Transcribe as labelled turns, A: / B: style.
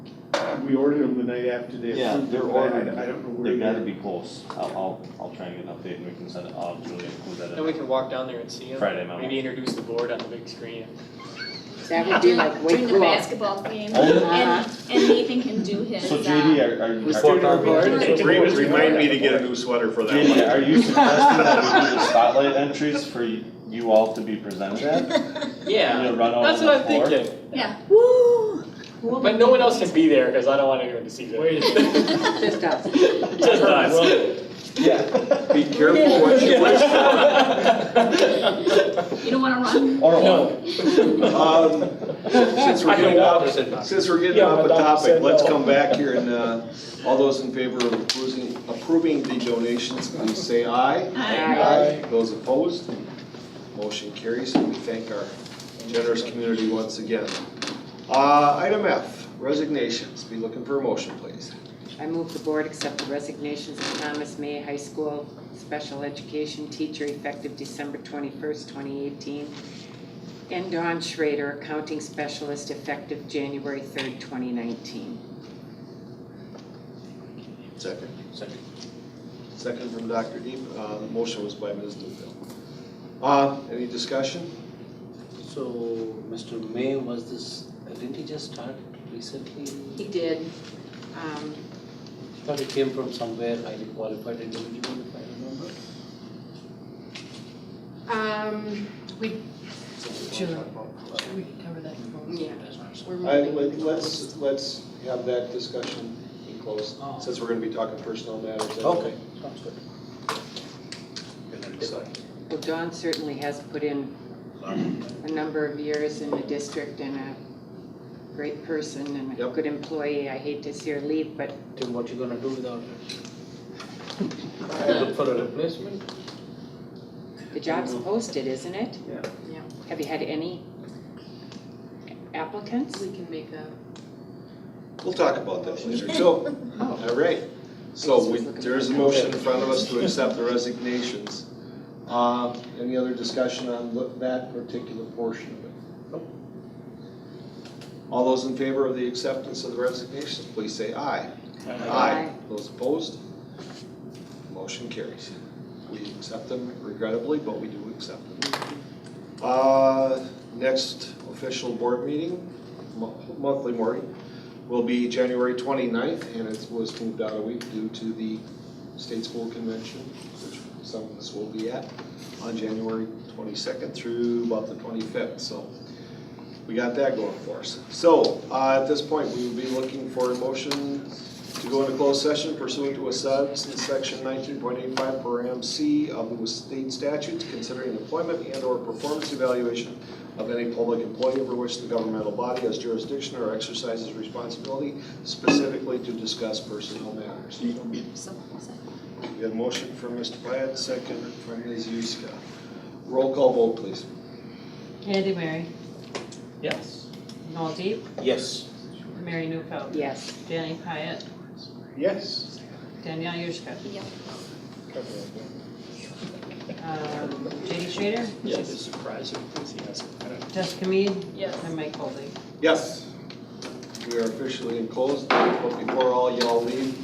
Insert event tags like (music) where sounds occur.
A: we ordered them the night after they
B: Yeah,
A: approved
B: they're
A: it, but I,
B: ordered.
A: I- I don't know where
B: They've
A: they
B: gotta be close. I'll, I'll, I'll try and get an update and we can send it, I'll really include that
C: Then we
B: in
C: can walk down there and see him,
B: Friday memo.
C: maybe introduce the board on the big screen.
D: That would be like way
E: During the
D: cool.
E: basketball game,
B: Oh,
E: and,
D: yeah.
E: and Nathan can do his,
B: So
E: uh,
B: JD, are, are you,
A: Let's
B: are-
A: do it on board.
F: Remind, remind me to get a new sweater for that
B: JD,
F: one.
B: are you suggesting that we do the spotlight entries for y- you all to be presented at?
C: Yeah,
B: You know, run all
C: that's
B: over
C: what
B: the
C: I'm
B: floor?
C: thinking,
E: yeah.
C: but no one else can be there, cause I don't want anyone to see (laughs) that.
D: Just us.
C: Just us.
B: Yeah.
F: Be
C: (laughs)
F: careful what you wish for.
E: You don't wanna run?
D: (laughs)
B: Or
C: No.
B: what?
F: Um, Since we're
C: I
F: getting
C: know
F: off,
C: Bob said no.
F: since we're getting
C: Yeah,
F: off
C: but
F: the
C: Bob
F: topic,
C: said
F: let's
C: no.
F: come back here and, uh, all those in favor of approving, approving the donations, please say aye.
D: Aye.
F: Those opposed, motion carries, and we thank our generous community once again. Uh, item F, resignations, be looking for a motion, please.
D: I move the board accept the resignations of Thomas May High School Special Education Teacher effective December twenty-first, twenty eighteen, and Dawn Schrader, Accounting Specialist effective January third, twenty nineteen.
F: Second. Second. Second from Dr. Deep, uh, the motion was by Ms. Newfield. Uh, any discussion?
G: So, Mr. May, was this, didn't he just start recently?
E: He did,
D: Um,
G: Thought he came from somewhere highly qualified individual, if I remember.
D: um, we,
G: Sure.
H: We can cover that in closed.
D: yeah, we're
F: I,
D: moving.
F: let- let's, let's have that discussion in close,
G: Oh.
F: since we're gonna be talking personal matters.
G: Okay, sounds good.
D: Well, Dawn certainly has put in a number of years in the district and a great person and a
F: Yep.
D: good employee. I hate to see her leave, but
G: Then what you gonna do without it? Look for a replacement?
D: the job's posted, isn't it?
G: Yeah.
D: Yeah. Have you had any applicants?
H: We can make a
F: We'll talk about that later. So, all right. So we- there's a motion in front of us to accept the resignations. Uh, Any other discussion on look- that particular portion of it? Nope. All those in favor of the acceptance of the resignations, please say aye.
D: Aye.
F: Those opposed? Motion carries. We accept them regrettably, but we do accept them. Uh, Next official board meeting, mo- monthly morning, will be January 29th, and it was moved out a week due to the state school convention, which some of us will be at, on January 22nd through about the 25th, so we got that going for us. So, uh, at this point, we will be looking for a motion to go into closed session pursuant to Wisconsin Section nineteen point eight five per M C of the state statutes considering employment and or performance evaluation of any public employee over which the governmental body has jurisdiction or exercises responsibility specifically to discuss personnel matters. We
E: so, so.
F: have a motion from Mr. Pyatt, second from Ms. Huska. Roll call vote, please.
H: Andy Mary,
C: Yes.
H: Noel Deep,
G: Yes.
H: Mary Newfeld,
D: Yes.
H: Danny Pyatt,
F: Yes.
H: Danielle Yurzka,
E: Yeah.
H: um, JD Schrader,
C: Yes, it's surprising enthusiasm, I don't know.
H: Jessica Mead,
E: Yes.
H: and Mike Colby.
F: Yes. We are officially in closed, but before all y'all leave,